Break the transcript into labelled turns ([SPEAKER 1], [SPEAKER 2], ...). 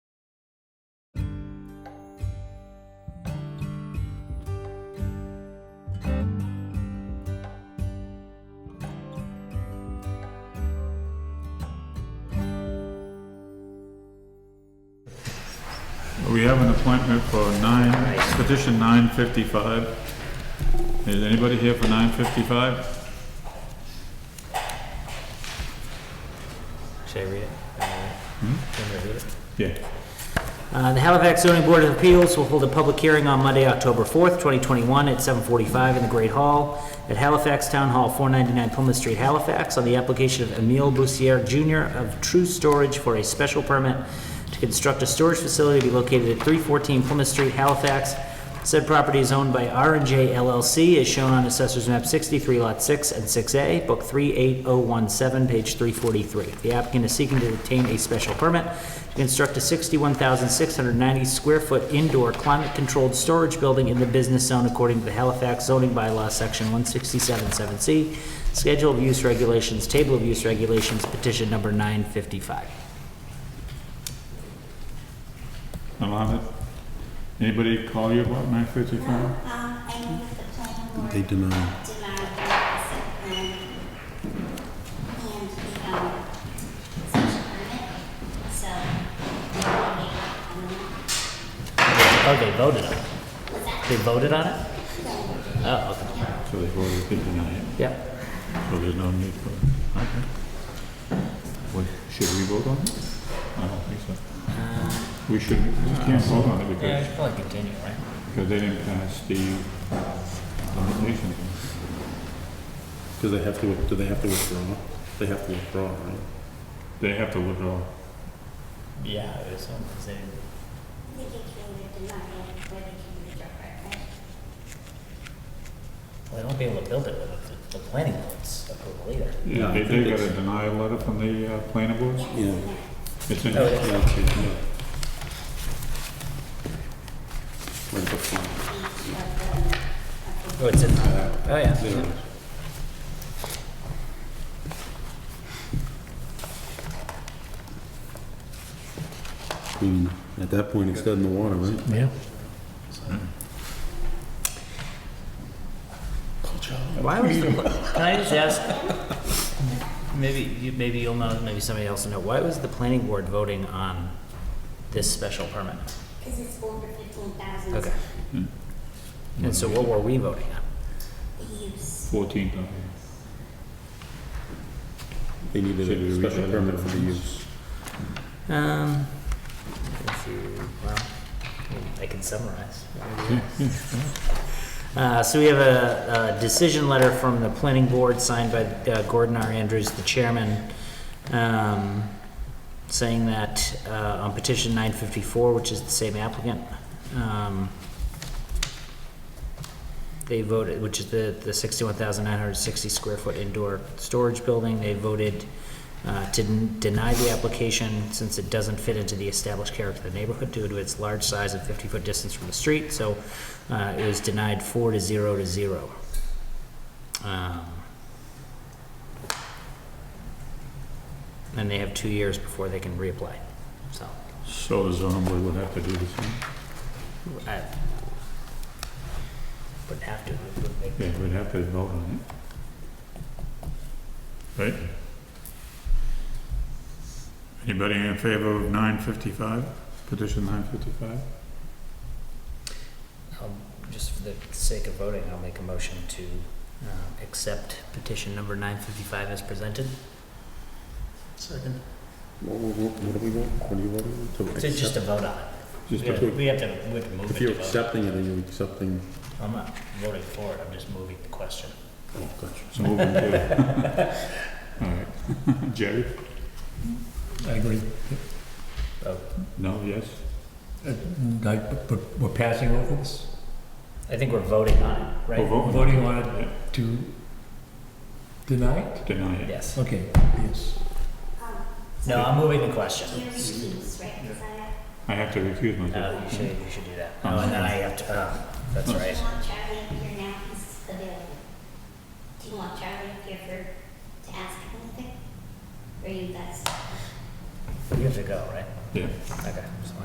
[SPEAKER 1] We have an appointment for nine, petition nine fifty-five. Is anybody here for nine fifty-five?
[SPEAKER 2] Should I read it? Can I read it?
[SPEAKER 1] Yeah.
[SPEAKER 2] Hmm? Uh, The Halifax Zoning Board of Appeals will hold a public hearing on Monday, October 4th, 2021, at 7:45 in the Great Hall at Halifax Town Hall, 499 Plymouth Street, Halifax, on the application of Emile Bussière Jr. of True Storage for a special permit to construct a storage facility to be located at 314 Plymouth Street, Halifax. Said property is owned by r and J LLC, as shown on Assessor's Map 63, Lot 6 and 6A, Book 38017, page 343. The applicant is seeking to obtain a special permit to construct a 61,690-square-foot indoor climate-controlled storage building in the business zone according to the Halifax zoning bylaw, Section 167.7C, Schedule of Use Regulations, Table of Use Regulations, petition number 955.
[SPEAKER 1] Mohammed? Anybody call you about nine fifty-five?
[SPEAKER 3] Um, I know that the planning board
[SPEAKER 4] They deny.
[SPEAKER 3] denied the site plan and the, um, special permit, so, I'm gonna,
[SPEAKER 2] Oh, they voted on it?
[SPEAKER 3] was that
[SPEAKER 2] They voted on it? Oh, okay.
[SPEAKER 1] So they've already been denied,
[SPEAKER 2] Yep.
[SPEAKER 1] so there's no need for it. Okay. Well, should we vote on it? I don't think so.
[SPEAKER 2] Uh,
[SPEAKER 1] We should, we can't vote on it because,
[SPEAKER 2] should probably continue, right?
[SPEAKER 1] because they didn't pass the nomination.
[SPEAKER 4] Do they have to, do they have to withdraw? They have to withdraw, right?
[SPEAKER 1] They have to withdraw.
[SPEAKER 2] Yeah, it was something.
[SPEAKER 3] they can either deny it or they can withdraw it, right?
[SPEAKER 2] Well, they won't be able to build it without the, the planning board's approval either.
[SPEAKER 4] Yeah, I
[SPEAKER 1] They, they
[SPEAKER 4] think
[SPEAKER 1] got a
[SPEAKER 4] it's-
[SPEAKER 1] denial letter from the uh, planning board?
[SPEAKER 4] Yeah.
[SPEAKER 1] It's in,
[SPEAKER 2] Oh, yeah.
[SPEAKER 4] Yeah, okay, yeah. Where's the flag?
[SPEAKER 2] Oh, it's in there. Oh, yeah.
[SPEAKER 4] There it is. I mean, at that point, it's dead in the water, right?
[SPEAKER 2] Yeah. Why was the, can I just ask, maybe, you, maybe you'll know, maybe somebody else will know, why was the planning board voting on this special permit?
[SPEAKER 3] Because it's over fifteen thousand.
[SPEAKER 2] Okay. And so what were we voting on?
[SPEAKER 3] The use.
[SPEAKER 1] fourteen thousand.
[SPEAKER 4] They needed
[SPEAKER 1] Should we
[SPEAKER 4] a
[SPEAKER 1] read
[SPEAKER 4] special
[SPEAKER 1] that?
[SPEAKER 4] permit for the use.
[SPEAKER 2] Um, if you, well, I can summarize. Uh, so we have a, a decision letter from the planning board signed by uh, Gordon R. Andrews, the chairman, um, saying that, uh, on petition nine fifty-four, which is the same applicant, um, they voted, which is the, the sixty-one thousand nine hundred sixty square foot indoor storage building, they voted uh, to n- deny the application since it doesn't fit into the established character of the neighborhood due to its large size and fifty-foot distance from the street, so, uh, it was denied four to zero to zero. Um, And they have two years before they can reapply, so,
[SPEAKER 1] So the zoning board would have to do the same?
[SPEAKER 2] I, wouldn't have to, it would make.
[SPEAKER 1] Yeah, we'd have to vote on it. Right? Anybody in favor of nine fifty-five, petition nine fifty-five?
[SPEAKER 2] I'll- Um, Just for the sake of voting, I'll make a motion to um, accept petition number 955 as presented. Second.
[SPEAKER 4] What, what, what do we want? What do you want? To
[SPEAKER 2] So just
[SPEAKER 4] accept-
[SPEAKER 2] to vote on it.
[SPEAKER 1] Just
[SPEAKER 2] We have
[SPEAKER 1] to,
[SPEAKER 2] to, we have to we have to move it
[SPEAKER 4] If you're
[SPEAKER 2] to vote.
[SPEAKER 4] accepting it, are you accepting?
[SPEAKER 2] I'm not voting for it, I'm just moving the question.
[SPEAKER 4] Oh, gotcha.
[SPEAKER 1] it's moving to. All right. Jerry?
[SPEAKER 5] I agree.
[SPEAKER 2] Oh,
[SPEAKER 1] No, yes?
[SPEAKER 5] Uh, Like, but we're passing over this,
[SPEAKER 2] I think we're voting on it,
[SPEAKER 1] We're
[SPEAKER 2] right?
[SPEAKER 1] voting.
[SPEAKER 5] voting on it to deny it?
[SPEAKER 1] Deny it.
[SPEAKER 2] Yes.
[SPEAKER 5] Okay, yes.
[SPEAKER 3] Um,
[SPEAKER 2] No, I'm moving the
[SPEAKER 3] do
[SPEAKER 2] question.
[SPEAKER 3] you recuse, right? Is that
[SPEAKER 1] I have to recuse myself.
[SPEAKER 2] No, Uh, you should, you should do that. Oh, and then I have to, oh, that's
[SPEAKER 3] it? Do
[SPEAKER 2] right.
[SPEAKER 3] you want Charlie up here now? He's available. Do you want Charlie up here for, to ask anything? Or you guys?
[SPEAKER 2] You have to go, right?
[SPEAKER 1] Yeah.
[SPEAKER 2] Okay, so